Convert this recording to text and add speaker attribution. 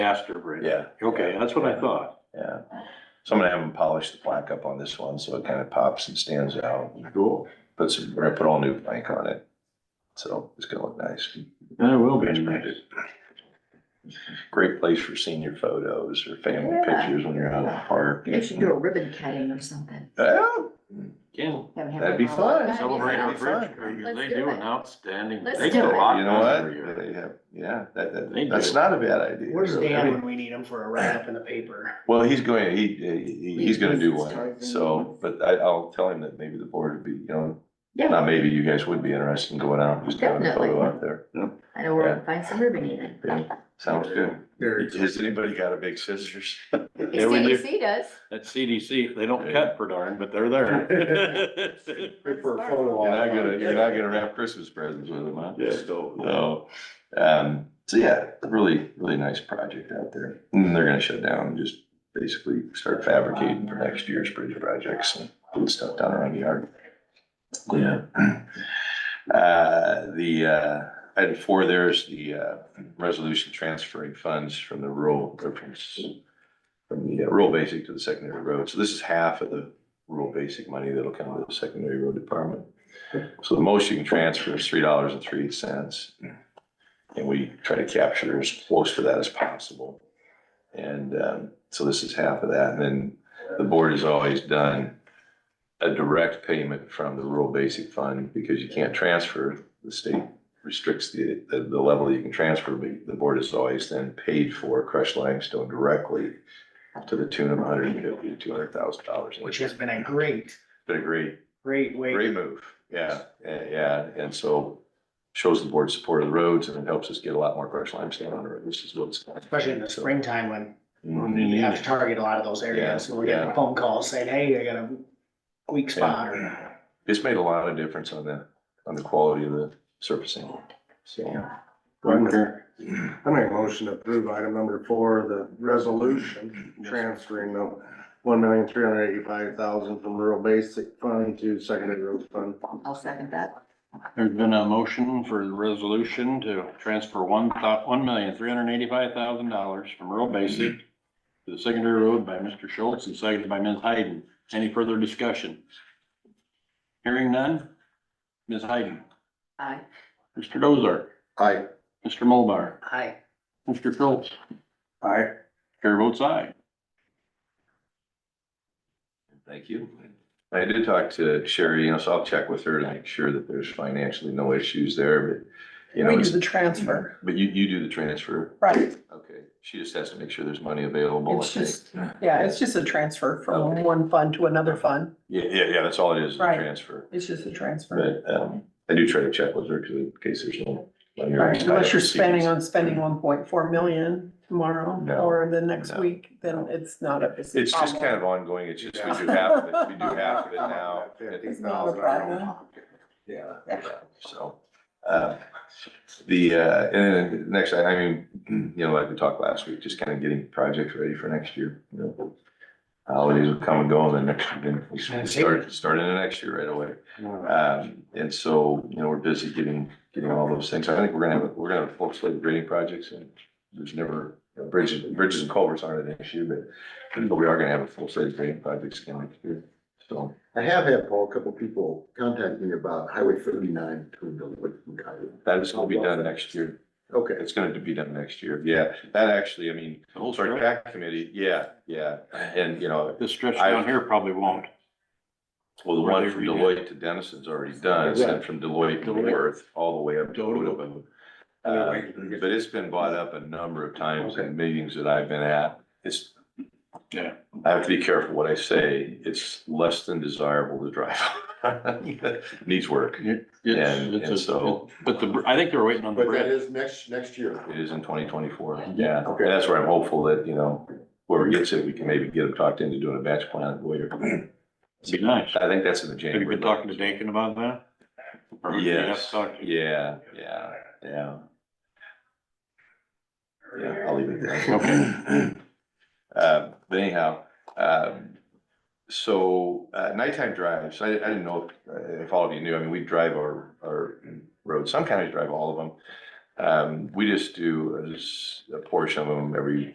Speaker 1: Astor Bridge.
Speaker 2: Yeah.
Speaker 1: Okay, that's what I thought.
Speaker 2: Yeah. So I'm gonna have them polish the plaque up on this one, so it kind of pops and stands out.
Speaker 1: Cool.
Speaker 2: Put some, we're gonna put all new plank on it. So it's gonna look nice.
Speaker 1: That will be.
Speaker 2: Great place for senior photos or family
Speaker 3: Yeah.
Speaker 2: pictures when you're out in the park.
Speaker 3: They should do a ribbon cutting or something.
Speaker 2: Yeah,
Speaker 1: Yeah.
Speaker 3: Have him
Speaker 2: That'd be
Speaker 3: have a-
Speaker 2: fun.
Speaker 3: That'd be
Speaker 1: Celebrate
Speaker 3: fun.
Speaker 1: our
Speaker 2: That'd be fun.
Speaker 1: bridge crew.
Speaker 3: Let's
Speaker 1: They
Speaker 3: do
Speaker 1: do
Speaker 3: it.
Speaker 1: an outstanding,
Speaker 3: Let's
Speaker 1: they
Speaker 3: do
Speaker 1: get a
Speaker 3: it.
Speaker 1: lot
Speaker 2: you know
Speaker 1: done every
Speaker 2: what?
Speaker 1: year.
Speaker 2: They have- Yeah, that,
Speaker 1: They
Speaker 2: that, that's
Speaker 1: do.
Speaker 2: not a bad idea.
Speaker 4: Where's
Speaker 2: really.
Speaker 4: Dan when we need him for a write-up in the paper?
Speaker 2: Well, he's going, he, he, he's gonna do one,
Speaker 3: Start
Speaker 2: so, but I, I'll tell him that maybe the board would be, you know,
Speaker 3: Yeah,
Speaker 2: not maybe you guys would be interested in going out, and just having a photo
Speaker 3: Definitely.
Speaker 2: out there.
Speaker 3: I know where we can find some ribbon even.
Speaker 2: Yeah, sounds good.
Speaker 4: Or-
Speaker 2: Has anybody got a big scissors?
Speaker 1: Yeah, we do.
Speaker 3: CDC does.
Speaker 1: That CDC, they don't cut for darn, but they're there.
Speaker 3: Prefer photo
Speaker 2: You're not gonna, you're not gonna wrap Christmas presents with them, huh?
Speaker 1: Yeah, so,
Speaker 2: So, um, so yeah, really, really nice project out there. And they're gonna shut down and just basically start fabricating for next year's bridge projects and put stuff down around the yard. Yeah. Uh, the, uh, item four, there's the, uh, resolution transferring funds from the rural, or from s- from the uh, rural basic to the secondary road. So this is half of the rural basic money that'll come to the secondary road department. So the most you can transfer is three dollars and three cents. And we try to capture as close to that as possible. And um, so this is half of that. And then the board has always done a direct payment from the rural basic fund because you can't transfer. The state restricts the, the the level that you can transfer, but the board has always then paid for crushed limestone directly to the tune of $150,000 to two hundred thousand dollars.
Speaker 4: Which has been a great,
Speaker 2: Been a great
Speaker 4: great way.
Speaker 2: Great move, yeah, yeah, yeah, and so shows the board support of the roads and it helps us get a lot more crushed limestone on the road, which is what's.
Speaker 4: Especially in the springtime when
Speaker 2: Mhm.
Speaker 4: you have to target a lot of those areas,
Speaker 2: Yeah,
Speaker 4: and we're
Speaker 2: yeah.
Speaker 4: getting phone calls saying, hey, I got a weak
Speaker 5: Mm-hmm.
Speaker 4: spot, or
Speaker 2: Yeah. It's made a lot of difference on the, on the quality of the surfacing, so.
Speaker 6: Wonder. I make a motion to approve item number four, the resolution transferring the one million three hundred eighty-five thousand from rural basic fund to secondary road fund.
Speaker 3: I'll second that.
Speaker 1: there's been a motion for the resolution to transfer one thou- one million, three hundred and eighty-five thousand dollars from rural basic to the secondary road by Mr. Schultz and seconded by Ms. Hayden. Any further discussion? Hearing none? Ms. Hayden?
Speaker 3: Aye.
Speaker 1: Mr. Dozart?
Speaker 6: Aye.
Speaker 1: Mr. Mulbar?
Speaker 4: hi,
Speaker 1: Mr. Schultz?
Speaker 6: Aye.
Speaker 1: Chair votes aye.
Speaker 2: Thank you. I did talk to Sherry, you know, so I'll check with her to make sure that there's financially no issues there, but, you know.
Speaker 5: We do
Speaker 2: it's-
Speaker 5: the transfer,
Speaker 2: But you, you do the transfer,
Speaker 5: right?
Speaker 2: okay, she just has to make sure there's money available. I
Speaker 5: It's
Speaker 2: think.
Speaker 5: just, yeah, it's just a transfer from one fund to another fund.
Speaker 2: Yeah, yeah, yeah, that's all it is, is a
Speaker 5: Right.
Speaker 2: transfer.
Speaker 5: It's just a transfer.
Speaker 2: But um, I do try to check with her 'cause in case there's no. money or
Speaker 5: Right, Unless you're
Speaker 2: receipts.
Speaker 5: spending on spending one point four million tomorrow
Speaker 2: No,
Speaker 5: or the next
Speaker 2: no.
Speaker 5: week, then it's not a. It's
Speaker 2: It's just kind of ongoing. It's just we do half of it, we do half of it now.
Speaker 6: Fifty
Speaker 5: It's not a
Speaker 6: thousand. I don't-
Speaker 5: problem.
Speaker 2: Yeah, so. uh, The, uh, and then next, I I mean, you know, like we talked last week, just kind of getting projects ready for next year, you know. Holidays will come and go and then next, then we start, start in the next year right away. Um, and so, you know, we're busy getting, getting all those things. I think we're gonna have, we're gonna have full slate of grading projects and there's never, bridges, bridges and culverts aren't an issue, but, but we are gonna have a full slate of grading projects again next year. So,
Speaker 7: I have had, Paul, a couple people contact me about Highway thirty-nine between Millwood and Coyote.
Speaker 2: that is gonna be done next year.
Speaker 7: Okay.
Speaker 2: It's gonna be done next year. Yeah, that actually, I mean,
Speaker 1: The whole
Speaker 2: sorry,
Speaker 1: stretch,
Speaker 2: PAC committee, yeah, yeah. And, you know,
Speaker 1: this stretch down here probably won't.
Speaker 2: well, the one from Deloitte to Denison's already done, it's then from Deloitte to Worth, all the way up to Odoba. Uh, But it's been brought up a number of times in meetings that I've been at. It's.
Speaker 1: Yeah.
Speaker 2: I have to be careful what I say. It's less than desirable to drive. Needs work.
Speaker 1: It-
Speaker 2: And-
Speaker 1: It's,
Speaker 2: and
Speaker 1: it's a,
Speaker 2: so-
Speaker 1: but the, br- I think they're waiting on the
Speaker 7: But that
Speaker 1: bridge.
Speaker 7: is next, next year.
Speaker 2: It is in twenty twenty-four.
Speaker 1: Yeah.
Speaker 2: Yeah, and that's where I'm hopeful that, you know, whoever gets it, we can maybe get them talked into doing a batch plan later.
Speaker 1: It'd be nice.
Speaker 2: I think that's in the
Speaker 1: Have
Speaker 2: January.
Speaker 1: you been talking to Dakin about that? Or you have to
Speaker 2: Yes,
Speaker 1: talk to-
Speaker 2: yeah, yeah, yeah. Yeah, I'll leave it there.
Speaker 1: Okay.
Speaker 2: Uh, but anyhow, um, so, uh, nighttime drives, I, I didn't know if, if all of you knew, I mean, we drive our, our roads, some counties drive all of them. Um, we just do a s- a portion of them every